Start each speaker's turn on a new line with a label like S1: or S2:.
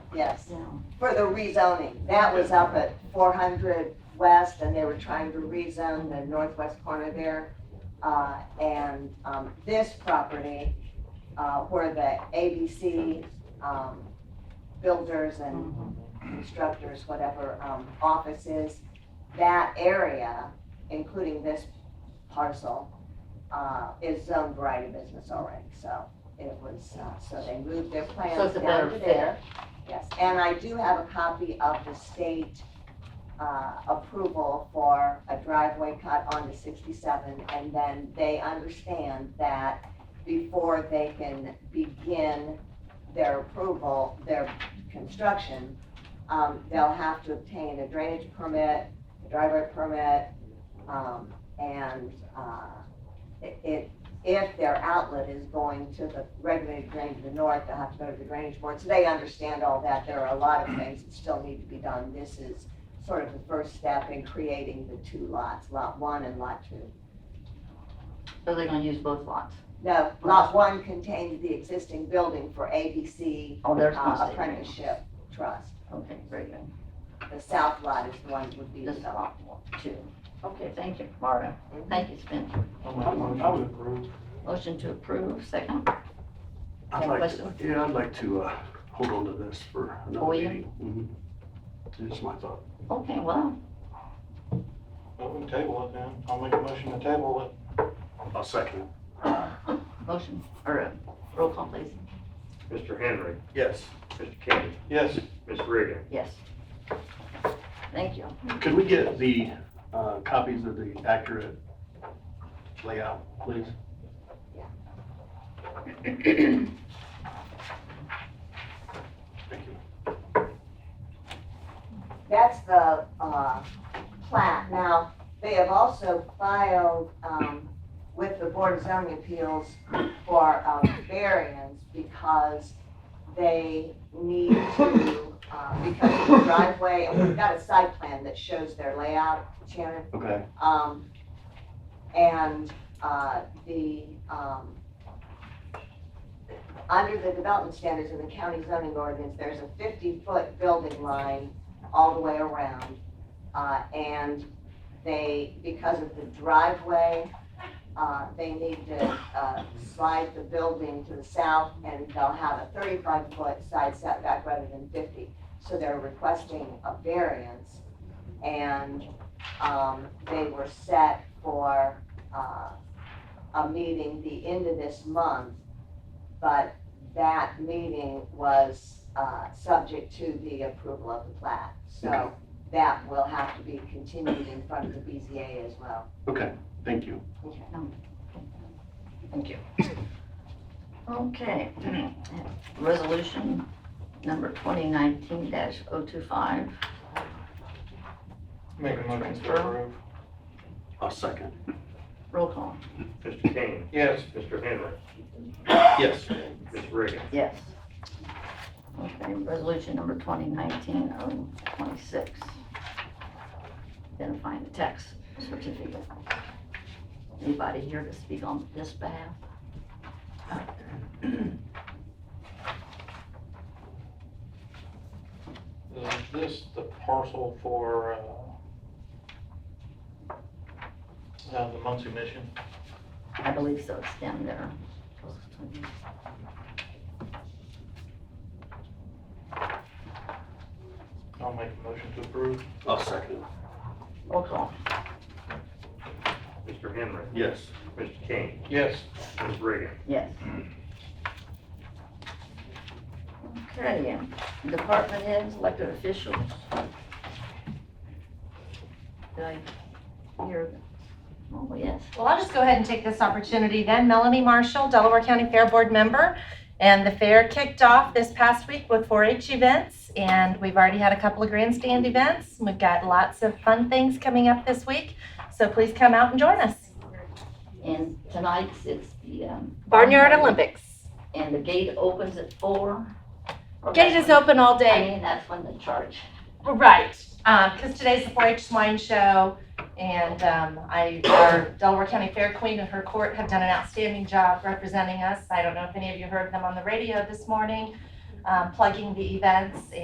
S1: yes,
S2: Yeah.
S1: for the rezoning. That was up at four hundred west and they were trying to rezone the northwest corner there. Uh, and, um, this property, uh, where the ABC, um, builders and constructors, whatever, um, offices, that area, including this parcel, uh, is zoned variety business already, so it was, uh, so they moved their
S2: So
S1: plans
S2: it's a
S1: down to
S2: better
S1: there. Yes, and I do have a copy of the state, uh, approval for a driveway cut onto sixty-seven, and then they understand that before they can begin their approval, their construction, um, they'll have to obtain a drainage permit, a driveway permit, um, and, uh, it- it, if their outlet is going to the regulated drain to the north, they'll have to go to the drainage board, so they understand all that, there are a lot of things that still need to be done, this is sort of the first step in creating the two lots, lot one and lot two.
S2: So they're gonna use both lots?
S1: No, lot one contains the existing building for ABC
S2: Oh, there's no
S1: uh,
S2: state drainage.
S1: Apprenticeship Trust.
S2: Okay, very good.
S1: The south lot is the one that would be
S2: This is
S1: developed. Mm-hmm.
S2: lot one, two. Okay, thank you, Marta. Thank you, Spencer.
S3: I would I would approve.
S2: Motion to approve, second.
S3: I'd
S2: Any
S3: like, to-
S2: questions?
S3: yeah, I'd like to, uh, hold on to this for another
S2: Will you?
S3: meeting. Mhm. Just my thought.
S2: Okay, well,
S4: Well, we can table it then. I'll make a motion to table it.
S3: I'll second.
S2: uh, motion, or uh, roll call, please.
S5: Mr. Henry,
S3: Yes.
S5: Mr. Kenny,
S4: Yes,
S5: Ms. Reagan.
S2: Yes. Thank you.
S3: Could we get the, uh, copies of the accurate layout, please? Thank you.
S1: That's the, uh, plat. Now, they have also filed, um, with the Board of Zoning Appeals for, um, variance because they need to, uh, because of the driveway, and we've got a site plan that shows their layout, Shannon.
S3: Okay,
S1: Um, and, uh, the, um, under the development standards of the county zoning ordinance, there's a fifty-foot building line all the way around. Uh, and they, because of the driveway, uh, they need to, uh, slide the building to the south and they'll have a thirty-five foot side setback rather than fifty. So they're requesting a variance and um, they were set for, uh, a meeting the end of this month. But that meeting was, uh, subject to the approval of the plat. So
S3: Okay.
S1: that will have to be continued in front of the BZA as well.
S3: okay, thank you.
S1: Okay.
S2: Thank you. Okay, resolution number 2019-025,
S4: make a motion to approve.
S3: I'll second.
S2: roll call.
S5: Mr. Kenny,
S4: Yes,
S5: Mr. Henry,
S3: Yes.
S5: Ms. Reagan.
S2: Yes. Okay, resolution number 2019-026, identifying the tax certificate. Anybody here to speak on this behalf?
S4: is this the parcel for, uh, uh, the Muncie Mission?
S2: I believe so, it's down there.
S4: I'll make a motion to approve.
S3: I'll second.
S2: Roll call.
S5: Mr. Henry,
S3: Yes.
S5: Mr. Kenny,
S4: Yes,
S5: Ms. Reagan.
S2: Yes. Okay, department heads, elected officials. Did I hear? Oh, yes.
S6: Well, I'll just go ahead and take this opportunity then. Melanie Marshall, Delaware County Fair Board member. And the fair kicked off this past week with 4-H events, and we've already had a couple of grandstand events. We've got lots of fun things coming up this week, so please come out and join us.
S2: And tonight's, it's the, um.
S6: Barnyard Olympics.
S2: And the gate opens at four. Or
S6: Gate
S2: that's
S6: is
S2: when-
S6: open all
S2: I
S6: day.
S2: mean, that's when the charge.
S6: Right, because today's the 4-H swine show, and um, I, our Delaware County Fair Queen and her court have done an outstanding job representing us. I don't know if any of you heard them on the radio this morning, um, plugging the events